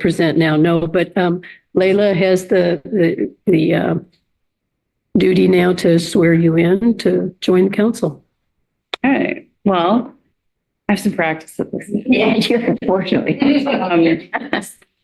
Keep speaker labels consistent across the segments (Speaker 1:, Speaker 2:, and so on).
Speaker 1: present now, no, but um, Layla has the, the, the uh, duty now to swear you in to join the council.
Speaker 2: All right, well, I have some practice at this.
Speaker 3: Yeah, unfortunately.
Speaker 2: Um,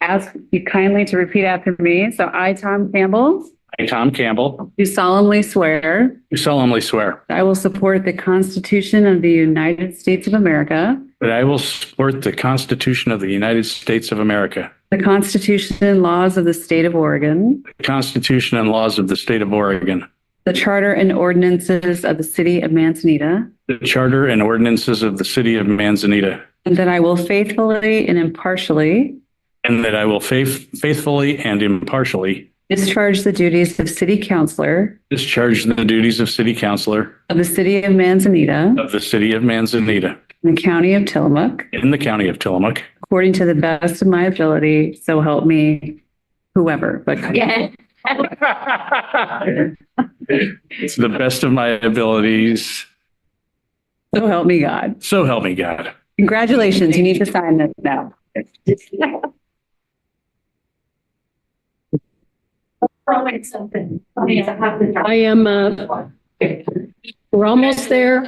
Speaker 2: Ask you kindly to repeat after me. So I, Tom Campbell,
Speaker 4: I, Tom Campbell,
Speaker 2: do solemnly swear
Speaker 4: do solemnly swear
Speaker 2: that I will support the Constitution of the United States of America,
Speaker 4: that I will support the Constitution of the United States of America,
Speaker 2: the Constitution and laws of the state of Oregon,
Speaker 4: the Constitution and laws of the state of Oregon,
Speaker 2: the charter and ordinances of the city of Manzanita,
Speaker 4: the charter and ordinances of the city of Manzanita,
Speaker 2: and that I will faithfully and impartially
Speaker 4: and that I will faith- faithfully and impartially
Speaker 2: discharge the duties of city councillor
Speaker 4: discharge the duties of city councilor
Speaker 2: of the city of Manzanita
Speaker 4: of the city of Manzanita
Speaker 2: in the county of Tillamook,
Speaker 4: in the county of Tillamook,
Speaker 2: According to the best of my ability, so help me whoever, but
Speaker 3: Yeah.
Speaker 4: to the best of my abilities.
Speaker 2: so help me God.
Speaker 4: So help me God.
Speaker 2: Congratulations, you need to sign this now.
Speaker 3: Throwing something. Oh, yeah, have the-
Speaker 1: I am, uh, we're almost there.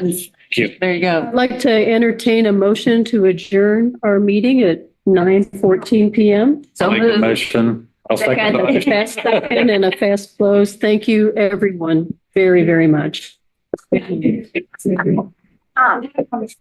Speaker 2: There you go.
Speaker 1: I'd like to entertain a motion to adjourn our meeting at 9:14 PM.
Speaker 2: So
Speaker 4: Make a
Speaker 2: moved.
Speaker 4: motion. I'll second the
Speaker 1: A
Speaker 4: motion.
Speaker 1: fast second and a fast close. Thank you, everyone, very, very much.
Speaker 3: Um,